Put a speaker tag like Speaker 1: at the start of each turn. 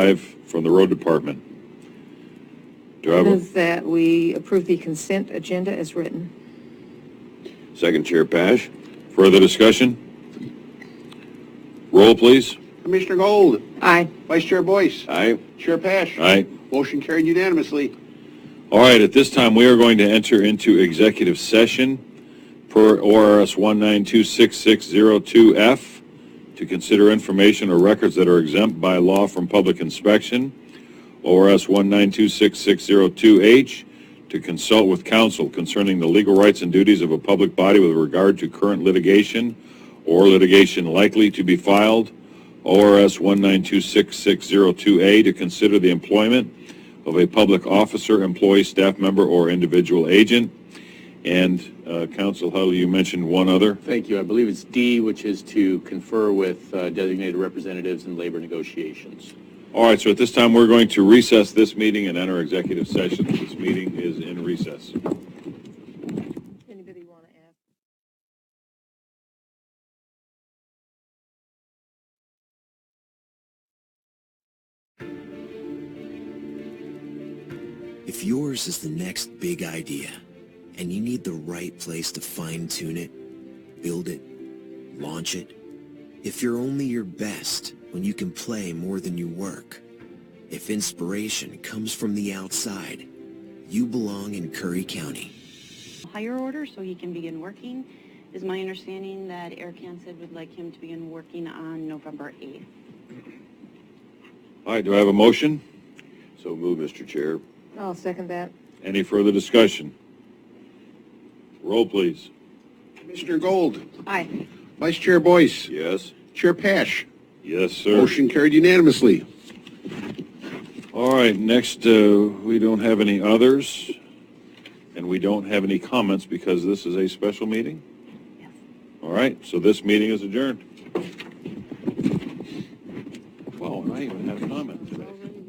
Speaker 1: Five from the road department. Do I have a
Speaker 2: Move that we approve the consent agenda as written.
Speaker 1: second, Chair Pash? Further discussion? Roll, please.
Speaker 3: Commissioner Gold,
Speaker 2: Aye.
Speaker 3: Vice Chair Boyce,
Speaker 1: Aye.
Speaker 3: Chair Pash.
Speaker 1: Aye.
Speaker 3: Motion carried unanimously.
Speaker 1: All right, at this time, we are going to enter into executive session per ORS 1926602F to consider information or records that are exempt by law from public inspection, ORS 1926602H, to consult with counsel concerning the legal rights and duties of a public body with regard to current litigation or litigation likely to be filed, ORS 1926602A, to consider the employment of a public officer, employee, staff member, or individual agent. And uh, Counsel Huddle, you mentioned one other.
Speaker 4: Thank you. I believe it's D, which is to confer with uh, designated representatives in labor negotiations.
Speaker 1: All right, so at this time, we're going to recess this meeting and enter executive session. This meeting is in recess.
Speaker 2: Anybody want to add?
Speaker 5: If yours is the next big idea and you need the right place to fine tune it, build it, launch it, if you're only your best when you can play more than you work, if inspiration comes from the outside, you belong in Curry County.
Speaker 6: higher order so he can begin working. Is my understanding that Eric Hansen would like him to begin working on November 8th.
Speaker 1: All right, do I have a motion?
Speaker 4: So move, Mr. Chair.
Speaker 2: I'll second that.
Speaker 1: Any further discussion? Roll, please.
Speaker 3: Commissioner Gold,
Speaker 2: Aye.
Speaker 3: Vice Chair Boyce,
Speaker 1: Yes.
Speaker 3: Chair Pash.
Speaker 1: Yes, sir.
Speaker 3: Motion carried unanimously.
Speaker 1: All right, next, uh, we don't have any others, and we don't have any comments because this is a special meeting?
Speaker 6: Yes.
Speaker 1: All right, so this meeting is adjourned. Wow, I even have comments.
Speaker 6: Already